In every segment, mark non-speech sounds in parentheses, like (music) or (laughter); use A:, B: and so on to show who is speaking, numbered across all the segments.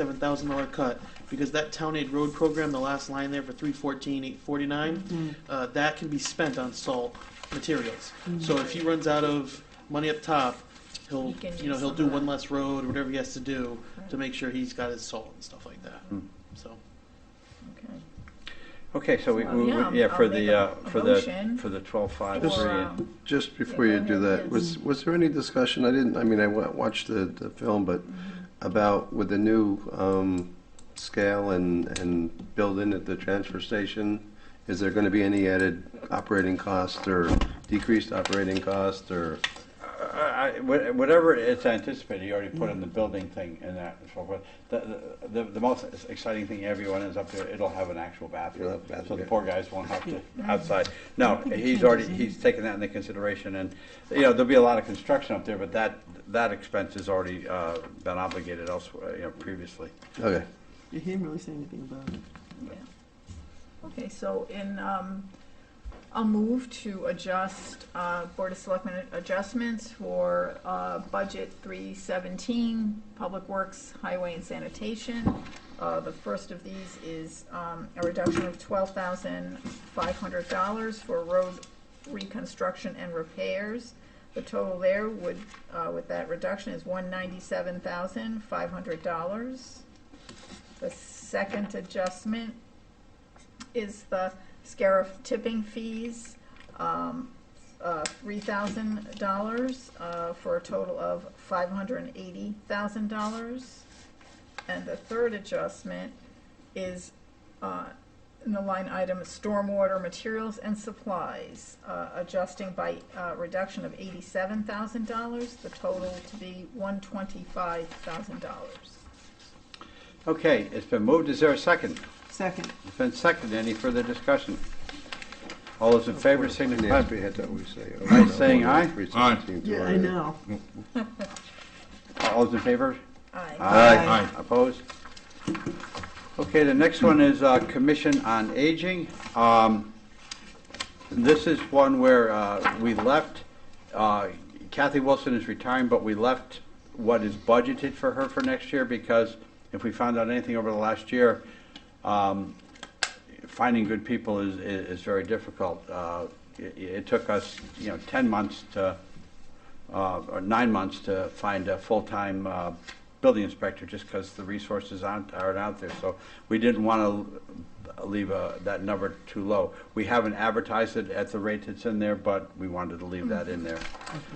A: seven thousand dollar cut, because that town aid road program, the last line there for three fourteen, eight
B: Mm-hmm.
A: forty-nine, uh, that can be spent on salt materials. So if he runs out of money up top, he'll,
B: Mm-hmm. He can
A: you know,
B: use
A: he'll
B: some
A: do
B: of
A: one
B: that.
A: less road, whatever he has to do, to make sure he's got his salt and stuff like that, so.
B: Okay.
C: Okay, so we,
B: Well,
C: we-
B: yeah,
C: yeah, for
B: I'll make
C: the,
B: a-
C: uh,
B: a
C: for the,
B: motion
C: for the twelve five
B: Or,
C: three.
B: uh,
D: Just before
B: Yeah,
D: you
B: go
D: do
B: ahead,
D: that,
B: yes.
D: was, was there any discussion, I didn't, I mean, I wa- watched the, the film, but about with the new um, scale and, and building at the transfer station, is there going to be any added operating cost or decreased operating cost or?
C: I- I- wha- Whatever it's anticipated, you already put in the building thing and that and so forth. The, the, the most exciting thing everyone is up there, it'll have an actual
D: It'll
C: bathroom.
D: have a bathroom,
C: So the
D: yeah.
C: poor guys won't
B: (laughs)
C: have to outside. No, he's already, he's taken that into consideration and, you know, there'll be a lot of construction up there, but that, that expense has already, uh, been obligated elsewhere, you know, previously.
D: Okay,
E: He didn't really say anything about it.
B: Okay, so in, um, I'll move to adjust, uh, Board of Selectmen adjustments for, uh, budget three seventeen, Public Works, Highway and Sanitation. Uh, the first of these is, um, a reduction of twelve thousand five hundred dollars for road reconstruction and repairs. The total there would, uh, with that reduction is one ninety-seven thousand five hundred dollars. The second adjustment is the Scarif tipping fees, um, uh, $3,000 uh, for a total of $580,000. And the third adjustment is uh, in the line item stormwater materials and supplies, uh, adjusting by uh, reduction of $87,000, the total to be $125,000.
C: Okay, it's been moved. Is there a second?
E: Second,
C: It's been seconded. Any further discussion? All those in favor signify
D: finance, we had to always say. oh,
C: Aye,
D: no,
C: saying aye?
D: 317 to
E: yeah,
D: our-
E: I know.
C: All those in favor?
B: Aye.
C: Aye. Opposed? Okay, the next one is uh, Commission on Aging. Um, This is one where uh, we left, uh, Kathy Wilson is retiring, but we left what is budgeted for her for next year because if we found out anything over the last year, um, finding good people is, is is very difficult. Uh, It it took us, you know, 10 months to, uh, or nine months to find a full-time uh, building inspector, just because the resources aren't, aren't out there. So we didn't want to leave uh, that number too low. We haven't advertised it at the rate that's in there, but we wanted to leave that in there.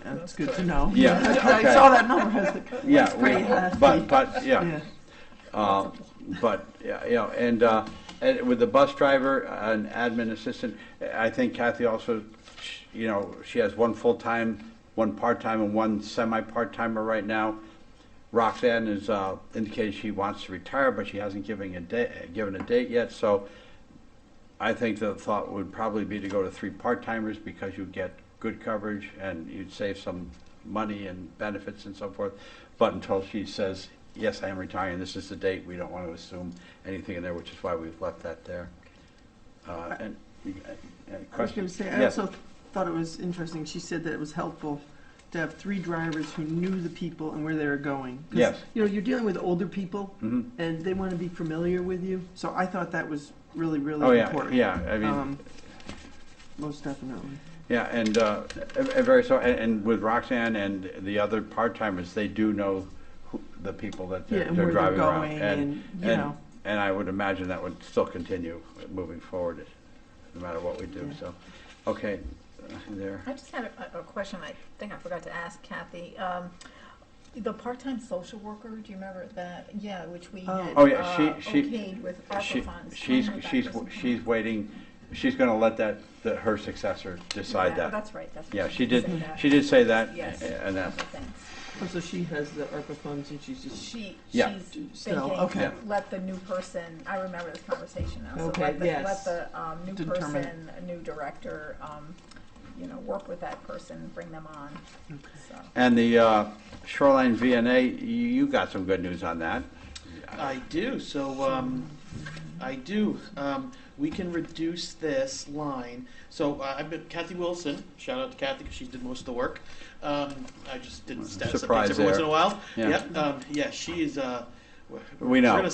E: That's good to know.
C: Yeah,
E: (laughs) I
C: okay. Uh,
E: saw that number, has the,
C: Yeah,
E: it's
C: we-
E: pretty hefty.
C: but, but, yeah.
E: Yeah,
C: Uh, But, yeah, you know, and, uh, and with the bus driver, an admin assistant, I think Kathy also, sh- you know, she has one full-time, one part-time, and one semi-part-timer right now. Roxanne has uh, indicated she wants to retire, but she hasn't given a da- given a date yet, so I think the thought would probably be to go to three part-timers because you get good coverage and you'd save some money and benefits and so forth. But until she says, yes, I am retiring, this is the date, we don't want to assume anything in there, which is why we've left that there. Uh, And, and
E: I was
C: question?
E: gonna say, I
C: Yes.
E: also thought it was interesting, she said that it was helpful to have three drivers who knew the people and where they were going. 'Cause,
C: Yes.
E: You know, you're dealing with older people,
C: Mhm.
E: and they wanna be familiar with you, so I thought that was really,
C: Oh,
E: really
C: yeah,
E: important.
C: yeah, I mean,
E: Um, Most definitely.
C: Yeah, and, uh, and- and very so, and, and with Roxanne and the other part-timers, they do know who, the people that
E: Yeah,
C: they're,
E: and
C: they're
E: where they're
C: driving around.
E: going and, you know.
C: and I would imagine that would still continue moving forward, no matter what we do,
E: Yeah.
C: so, okay, uh, there.
B: I just had a, a question I think I forgot to ask Kathy. Um, the part-time social worker, do you remember that? Yeah, which we
E: Oh.
B: had,
C: Oh, yeah, she-
B: uh,
C: she-
B: okayed with ARPA
C: She-
B: funds.
C: She's,
B: Remember that
C: she's,
B: was-
C: she's waiting, she's gonna let that, the- her successor decide
B: Yeah,
C: that.
B: That's right, that's.
C: Yeah,
B: right.
C: she
B: said
C: did,
B: that.
C: she did say that,
B: Yes.
C: and that,
B: Okay, thanks.
E: Oh, So she has the ARPA funds and she's just,
B: She,
C: Yeah.
B: she's
E: So,
B: thinking,
E: okay.
B: let the new person, I remember this conversation now, so
E: Okay,
B: let the, let
E: yes.
B: the, um, new
E: Determine.
B: person, new director, um, you know, work with that person, bring them on, so.
C: and the uh, Shoreline VNA, you, you got some good news on that.
A: I do. So um, I do. Um, we can reduce this line. So uh, I've been Kathy Wilson. Shout out to Kathy because she did most of the work. Um, I just did status
C: Surprise
A: updates every once in
C: there.
A: a while.
C: Yeah.
A: Yep. Um, yeah. She is. Uh,
C: We know.
A: We're gonna